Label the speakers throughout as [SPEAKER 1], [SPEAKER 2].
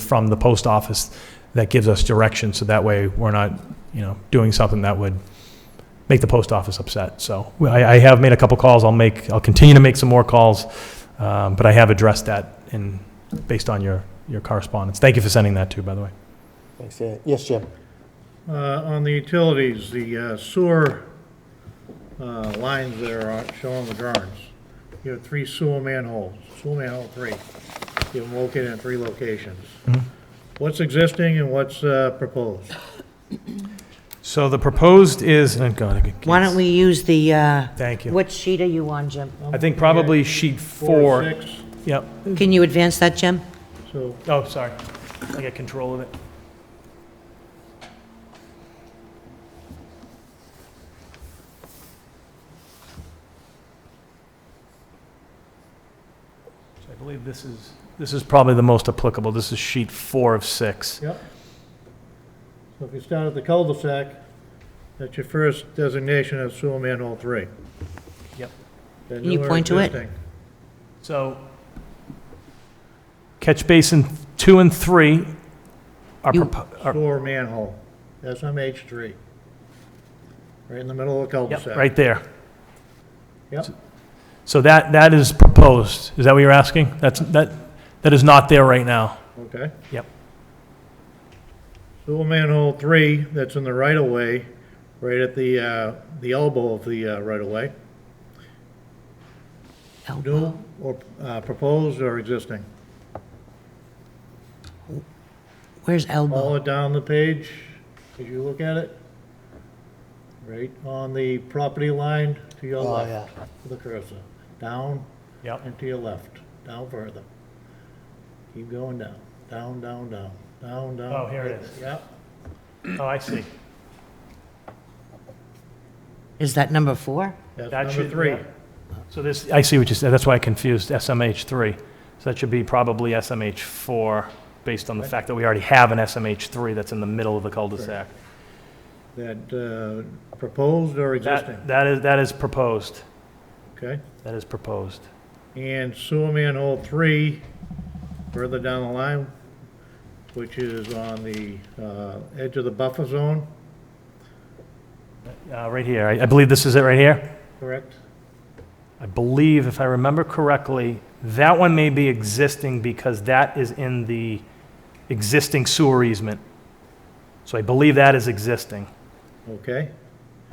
[SPEAKER 1] from the post office that gives us direction, so that way we're not, you know, doing something that would make the post office upset. So I, I have made a couple calls, I'll make, I'll continue to make some more calls, um, but I have addressed that in, based on your, your correspondence. Thank you for sending that too, by the way.
[SPEAKER 2] Thanks, yeah. Yes, Jim?
[SPEAKER 3] Uh, On the utilities, the uh, sewer uh, lines that are shown on the drawings, you have three sewer manholes, sewer manhole three. You have them located in three locations.
[SPEAKER 1] Mm-hmm.
[SPEAKER 3] What's existing and what's uh, proposed?
[SPEAKER 1] So the proposed is, and God,
[SPEAKER 4] Why don't we use the, uh,
[SPEAKER 1] Thank you.
[SPEAKER 4] what sheet are you on, Jim?
[SPEAKER 1] I think probably sheet
[SPEAKER 3] Four,
[SPEAKER 1] four.
[SPEAKER 3] six,
[SPEAKER 1] Yep.
[SPEAKER 4] Can you advance that, Jim?
[SPEAKER 3] so
[SPEAKER 1] Oh, sorry. I got control of it. So I believe this is, this is probably the most applicable. This is sheet four of six.
[SPEAKER 3] Yep. So if you start at the cul-de-sac, that's your first designation of sewer manhole three.
[SPEAKER 1] Yep.
[SPEAKER 3] Then
[SPEAKER 4] Can you
[SPEAKER 3] newer
[SPEAKER 4] point to it?
[SPEAKER 3] existing.
[SPEAKER 1] So catch basin two and three are,
[SPEAKER 4] You-
[SPEAKER 1] propo- are-
[SPEAKER 3] Sewer manhole, SMH three. Right in the middle of the
[SPEAKER 1] yep,
[SPEAKER 3] cul-de-sac.
[SPEAKER 1] right there.
[SPEAKER 3] Yep.
[SPEAKER 1] So that, that is proposed. Is that what you're asking? That's, that, that is not there right now.
[SPEAKER 3] Okay.
[SPEAKER 1] Yep.
[SPEAKER 3] Sewer manhole three, that's in the right-of-way, right at the, uh, the elbow of the uh, right-of-way.
[SPEAKER 4] Elbow.
[SPEAKER 3] New or uh, proposed or existing?
[SPEAKER 4] Where's elbow?
[SPEAKER 3] Follow it down the page, as you look at it. Right on the property line to your
[SPEAKER 2] Oh,
[SPEAKER 3] left,
[SPEAKER 2] yeah.
[SPEAKER 3] with the cursor. Down
[SPEAKER 1] Yep.
[SPEAKER 3] and to your left, down further. Keep going down, down, down, down, down, down.
[SPEAKER 1] Oh, here it is.
[SPEAKER 3] Yep,
[SPEAKER 1] Oh, I see.
[SPEAKER 4] Is that number four?
[SPEAKER 1] That
[SPEAKER 3] that's number
[SPEAKER 1] should-
[SPEAKER 3] three.
[SPEAKER 1] yeah. So this, I see what you said. That's why I confused SMH three. So that should be probably SMH four, based on the fact that we already have an SMH three that's in the middle of the cul-de-sac.
[SPEAKER 3] That uh, proposed or existing,
[SPEAKER 1] That, that is, that is proposed.
[SPEAKER 3] okay?
[SPEAKER 1] That is proposed.
[SPEAKER 3] And sewer manhole three, further down the line, which is on the uh, edge of the buffer zone,
[SPEAKER 1] Uh, right here. I, I believe this is it right here.
[SPEAKER 3] correct?
[SPEAKER 1] I believe, if I remember correctly, that one may be existing because that is in the existing sewer easement. So I believe that is existing.
[SPEAKER 3] Okay,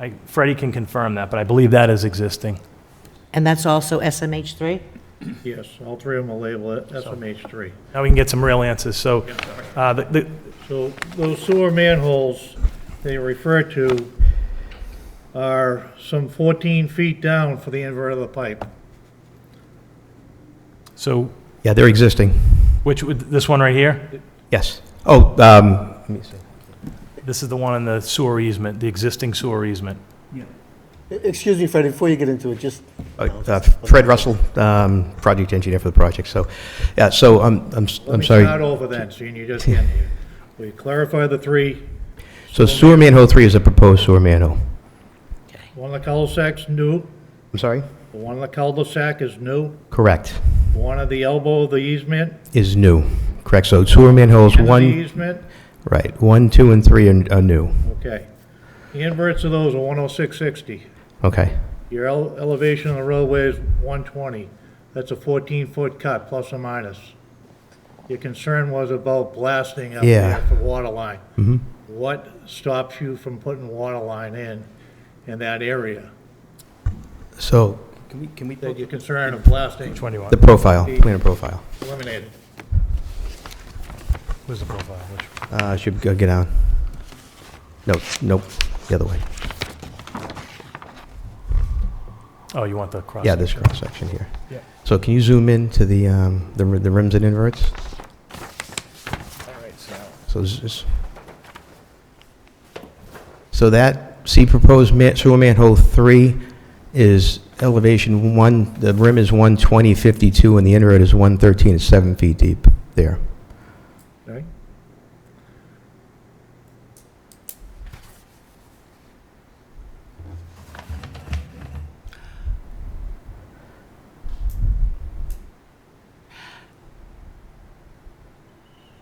[SPEAKER 1] I, Freddie can confirm that, but I believe that is existing.
[SPEAKER 4] And that's also SMH three?
[SPEAKER 3] yes, all three of them will label it SMH three.
[SPEAKER 1] Now we can get some real answers. So, uh, the, the,
[SPEAKER 3] So those sewer manholes they refer to are some 14 feet down for the invert of the pipe.
[SPEAKER 1] so
[SPEAKER 5] Yeah, they're existing,
[SPEAKER 1] which, would- this one right here?
[SPEAKER 5] yes. Oh, um, let me see.
[SPEAKER 1] This is the one in the sewer easement, the existing sewer easement.
[SPEAKER 2] E-, Excuse me, Fred, before you get into it, just,
[SPEAKER 5] Uh, Fred Russell, um, project engineer for the project, so, yeah, so um, I'm, I'm, s- I'm
[SPEAKER 3] Let me start
[SPEAKER 5] sorry.
[SPEAKER 3] over then, seeing you just getting here. We clarify the three,
[SPEAKER 5] So sewer manhole three is a proposed sewer manhole.
[SPEAKER 3] one of the cul-de-sacs new,
[SPEAKER 5] I'm sorry?
[SPEAKER 3] the one of the cul-de-sac is new,
[SPEAKER 5] Correct,
[SPEAKER 3] the one of the elbow of the easement,
[SPEAKER 5] is new, correct, so sewer manholes
[SPEAKER 3] end of the
[SPEAKER 5] one,
[SPEAKER 3] easement,
[SPEAKER 5] right, one, two, and three are are new,
[SPEAKER 3] okay. The inverts of those are 10660.
[SPEAKER 5] okay,
[SPEAKER 3] Your ele- elevation of the roadway is 120. That's a 14-foot cut, plus or minus. Your concern was about blasting up
[SPEAKER 5] Yeah.
[SPEAKER 3] there for water line. What stops you from putting water line in, in that area?
[SPEAKER 5] so.
[SPEAKER 3] That your concern of blasting
[SPEAKER 1] Which one do you
[SPEAKER 5] The
[SPEAKER 1] want?
[SPEAKER 5] profile, planner profile,
[SPEAKER 3] eliminated.
[SPEAKER 1] Where's the profile? Which-
[SPEAKER 5] uh, should go, get down. No, nope, the other way,
[SPEAKER 1] Oh, you want the cross?
[SPEAKER 5] yeah, this
[SPEAKER 1] section.
[SPEAKER 5] cross-section here.
[SPEAKER 1] Yeah.
[SPEAKER 5] So can you zoom in to the, um, the ri- the rims and inverts?
[SPEAKER 1] All right, so.
[SPEAKER 5] So this is, so that, see proposed ma- sewer manhole three is elevation one, the rim is one twenty fifty-two and the inroad is one thirteen, it's seven feet deep there.
[SPEAKER 3] Right?